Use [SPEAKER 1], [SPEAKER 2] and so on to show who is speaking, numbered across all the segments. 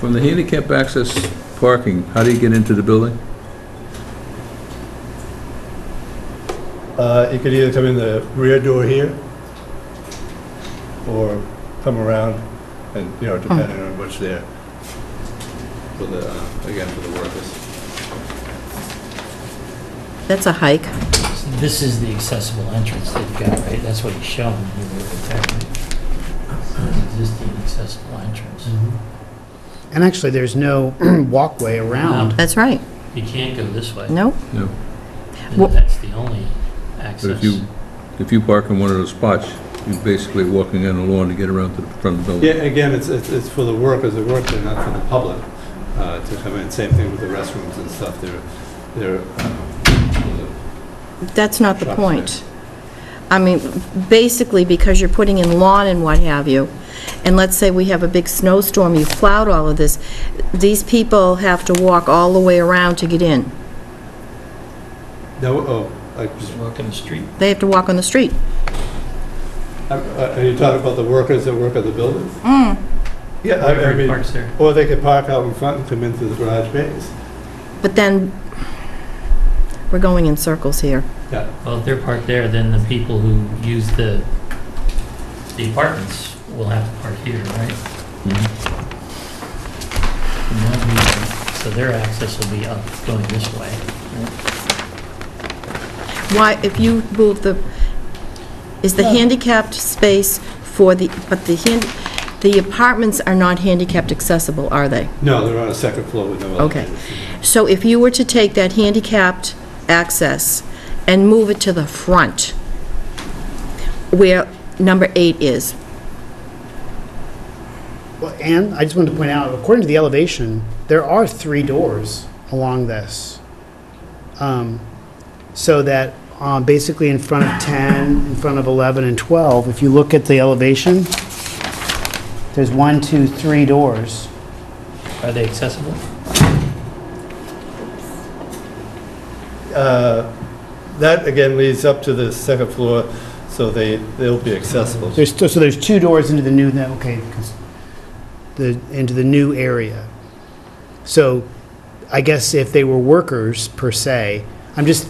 [SPEAKER 1] From the handicap access parking, how do you get into the building?
[SPEAKER 2] Uh, You could either come in the rear door here, or come around, and, you know, depending on what's there.
[SPEAKER 3] for the, uh, again, for the workers.
[SPEAKER 4] That's a hike.
[SPEAKER 5] This is the accessible entrance that you got, right? That's what you're showing. when you look at that, right? It's an Existing accessible entrance.
[SPEAKER 6] And actually, there's no walkway around.
[SPEAKER 4] That's right.
[SPEAKER 5] You can't go this way.
[SPEAKER 4] Nope.
[SPEAKER 1] No,
[SPEAKER 5] And
[SPEAKER 4] Well-
[SPEAKER 5] That's the only
[SPEAKER 1] but
[SPEAKER 5] access.
[SPEAKER 1] if you, if you park in one of those spots, you're basically walking on the lawn to get around to the front of the
[SPEAKER 3] Yeah,
[SPEAKER 1] building.
[SPEAKER 3] again, it's, it's it's for the workers, the workers, not for the public, uh, to come in. Same thing with the restrooms and stuff, they're, they're, uh,
[SPEAKER 4] That's not the
[SPEAKER 3] Shop
[SPEAKER 4] point. I mean, basically, because you're putting in lawn and what have you, and let's say we have a big snowstorm, you've plowed all of this, these people have to walk all the way around to get in.
[SPEAKER 3] no, oh, I just
[SPEAKER 5] Just walk in the street.
[SPEAKER 4] They have to walk on the street.
[SPEAKER 3] Are uh, are you talking about the workers that work at the building? Yeah, I I
[SPEAKER 5] Everybody
[SPEAKER 3] mean,
[SPEAKER 5] parks there.
[SPEAKER 3] or they could park out in front and come in through the garage bays.
[SPEAKER 4] But then, we're going in circles here.
[SPEAKER 5] Well, if they're parked there, then the people who use the, the apartments will have to park here, right?
[SPEAKER 1] Mm-hmm.
[SPEAKER 5] And that'll be- So their access will be up, going this way.
[SPEAKER 4] Why, if you move the, is the handicapped space for the, but the hand, the apartments are not handicapped accessible, are they?
[SPEAKER 3] No, they're on a second floor with no
[SPEAKER 4] Okay.
[SPEAKER 3] elevators.
[SPEAKER 4] So if you were to take that handicapped access and move it to the front, where number eight is,
[SPEAKER 6] Well, And I just wanted to point out, according to the elevation, there are three doors along this. Um, So that um, basically in front of 10, in front of 11 and 12, if you look at the elevation, there's one, two, three doors.
[SPEAKER 5] Are they accessible?
[SPEAKER 2] Uh, That, again, leads up to the second floor, so they, they'll be accessible.
[SPEAKER 6] There's, so there's two doors into the new, okay, 'cause the, into the new area. So I guess if they were workers per se, I'm just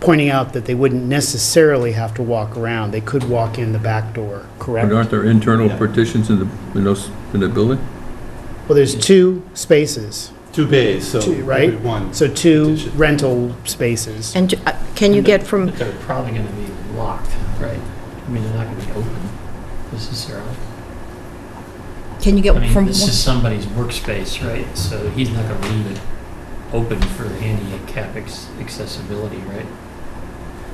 [SPEAKER 6] pointing out that they wouldn't necessarily have to walk around. They could walk in the back door, correct?
[SPEAKER 1] And
[SPEAKER 6] Well,
[SPEAKER 1] aren't there internal
[SPEAKER 3] Yeah.
[SPEAKER 1] partitions in the, in those, in the building?
[SPEAKER 6] there's two spaces,
[SPEAKER 3] Two bays, so.
[SPEAKER 6] Two, right?
[SPEAKER 3] every One.
[SPEAKER 6] so two rental spaces.
[SPEAKER 4] and uh, can you get from,
[SPEAKER 5] But they're probably going to be locked, right? I mean, they're not going to be open necessarily.
[SPEAKER 4] can you
[SPEAKER 5] I
[SPEAKER 4] get
[SPEAKER 5] mean,
[SPEAKER 4] from,
[SPEAKER 5] this is somebody's workspace, right? So he's not going to leave it open for handicap ex- accessibility, right?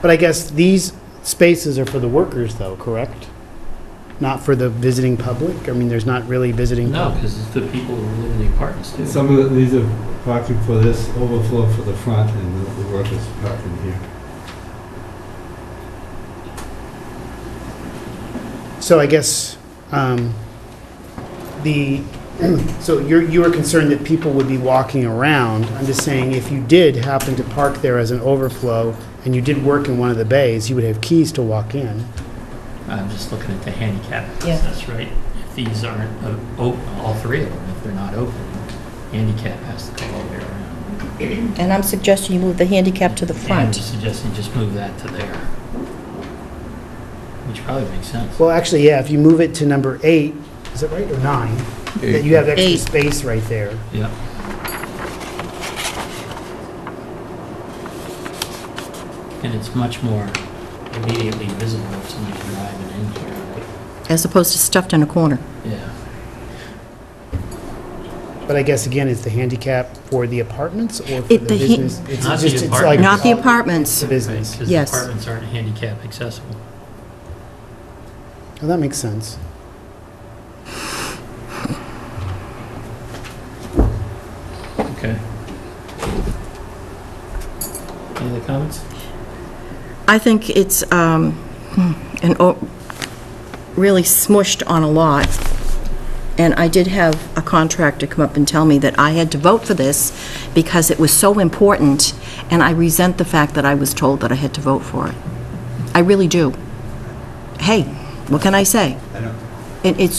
[SPEAKER 6] But I guess these spaces are for the workers though, correct? Not for the visiting public? I mean, there's not really visiting.
[SPEAKER 5] No,
[SPEAKER 6] public.
[SPEAKER 5] because it's the people who live in the apartments too.
[SPEAKER 3] Some of the- these are parking for this overflow for the front and the- the workers parking here.
[SPEAKER 6] So I guess um, the, so you're, you were concerned that people would be walking around. I'm just saying, if you did happen to park there as an overflow, and you did work in one of the bays, you would have keys to walk in.
[SPEAKER 5] I'm just looking at the handicap
[SPEAKER 4] Yeah.
[SPEAKER 5] access, right? If these aren't uh, open, all three of them, if they're not open, handicap has to go all the way around.
[SPEAKER 4] and I'm suggesting you move the handicap to the
[SPEAKER 5] And we're
[SPEAKER 4] front.
[SPEAKER 5] suggesting just move that to there, which probably makes sense.
[SPEAKER 6] Well, actually, yeah, if you move it to number eight, is it right, or nine? That you have
[SPEAKER 4] Eight.
[SPEAKER 6] extra space right there.
[SPEAKER 5] Yeah. And it's much more immediately visible if somebody's driving in here, right?
[SPEAKER 4] As opposed to stuffed in a corner.
[SPEAKER 5] Yeah.
[SPEAKER 6] But I guess, again, it's the handicap for the apartments or for
[SPEAKER 4] It- the
[SPEAKER 6] the
[SPEAKER 4] he-
[SPEAKER 6] business? It's
[SPEAKER 5] Not the
[SPEAKER 6] just- it's like-
[SPEAKER 5] apartments.
[SPEAKER 4] Not the apartments.
[SPEAKER 6] It's a business.
[SPEAKER 5] Because
[SPEAKER 4] Yes.
[SPEAKER 5] apartments aren't handicap accessible.
[SPEAKER 6] Well, that makes sense.
[SPEAKER 5] Okay. Any other comments?
[SPEAKER 4] I think it's um, an, o- really smushed on a lot, and I did have a contractor come up and tell me that I had to vote for this because it was so important, and I resent the fact that I was told that I had to vote for it. I really do. Hey, what can I say?
[SPEAKER 3] I know.
[SPEAKER 4] It- It's